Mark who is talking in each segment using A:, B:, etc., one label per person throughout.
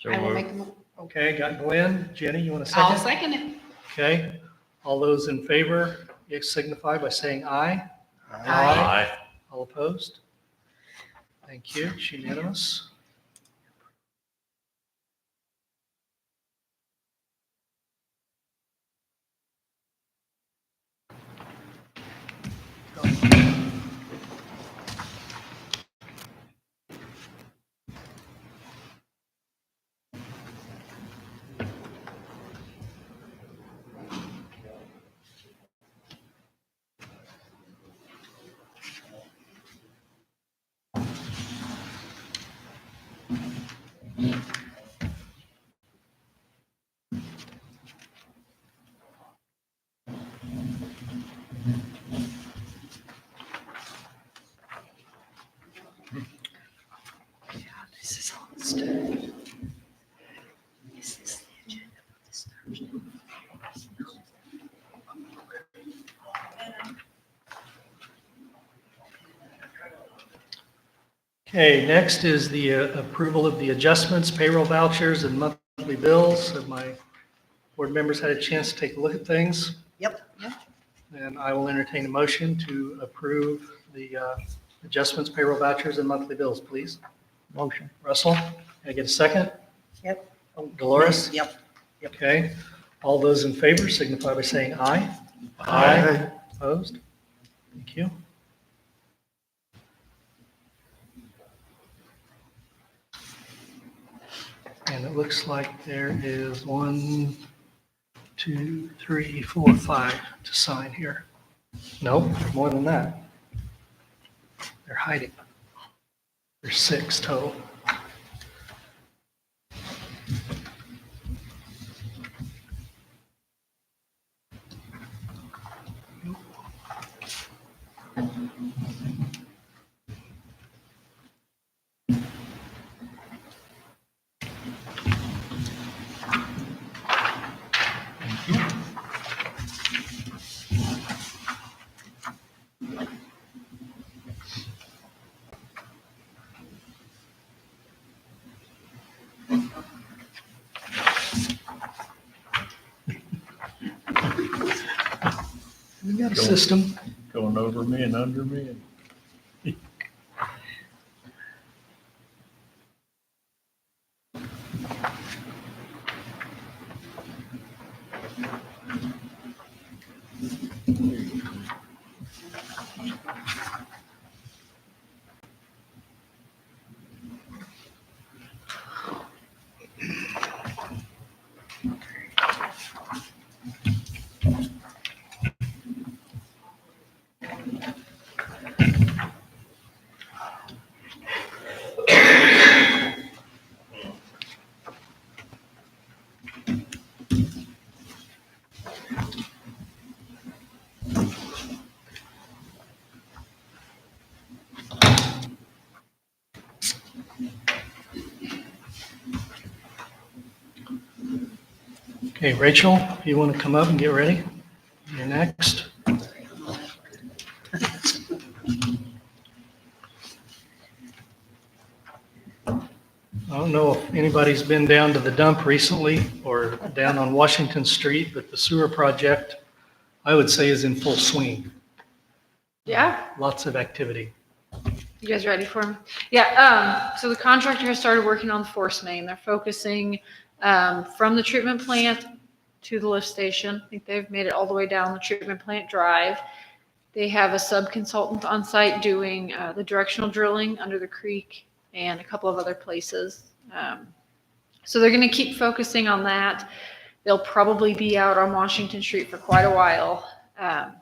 A: So
B: I will
A: moved.
B: make, a mo-
C: Okay, got Glenn, Jenny, you want to
B: I'll
C: second?
B: second it.
C: Okay, all those in favor, you signify by saying aye.
B: Aye.
C: All opposed? Thank you, it's unanimous.
B: This is all stupid. This is the agenda for this Thursday.
C: Okay, next is the uh, approval of the adjustments, payroll vouchers, and monthly bills. Have my board members had a chance to take a look at things?
D: Yep.
B: Yep.
C: And I will entertain a motion to approve the uh, adjustments, payroll vouchers, and monthly bills, please.
D: Motion.
C: Russell, can I get a second?
D: Yep.
C: Dolores?
D: Yep.
C: Okay, all those in favor signify by saying aye.
A: Aye.
C: Opposed? Thank you. And it looks like there is one, two, three, four, five to sign here. Nope, more than that. They're hiding. There's six total. We got a system.
A: Going over me and under me and.
C: Okay, Rachel, if you want to come up and get ready, you're next. I don't know if anybody's been down to the dump recently or down on Washington Street, but the sewer project, I would say, is in full swing.
E: Yeah,
C: Lots of activity.
E: you guys ready for me? Yeah, um, so the contractor has started working on the force main. They're focusing, um, from the treatment plant to the lift station. I think they've made it all the way down the treatment plant drive. They have a sub-consultant on site doing, uh, the directional drilling under the creek and a couple of other places. Um, so they're gonna keep focusing on that. They'll probably be out on Washington Street for quite a while. Um,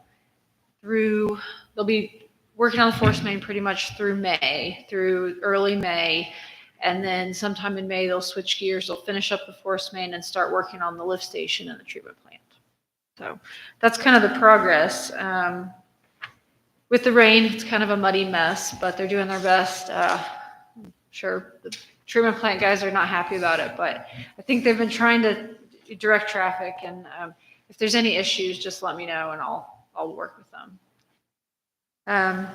E: through, they'll be working on the force main pretty much through May, through early May. And then sometime in May, they'll switch gears, they'll finish up the force main and start working on the lift station and the treatment plant. So that's kind of the progress. Um, with the rain, it's kind of a muddy mess, but they're doing their best. Uh, I'm sure the treatment plant guys are not happy about it, but I think they've been trying to direct traffic and, um, if there's any issues, just let me know and I'll, I'll work with them. Um,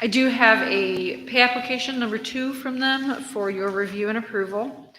E: I do have a pay application number two from them for your review and approval.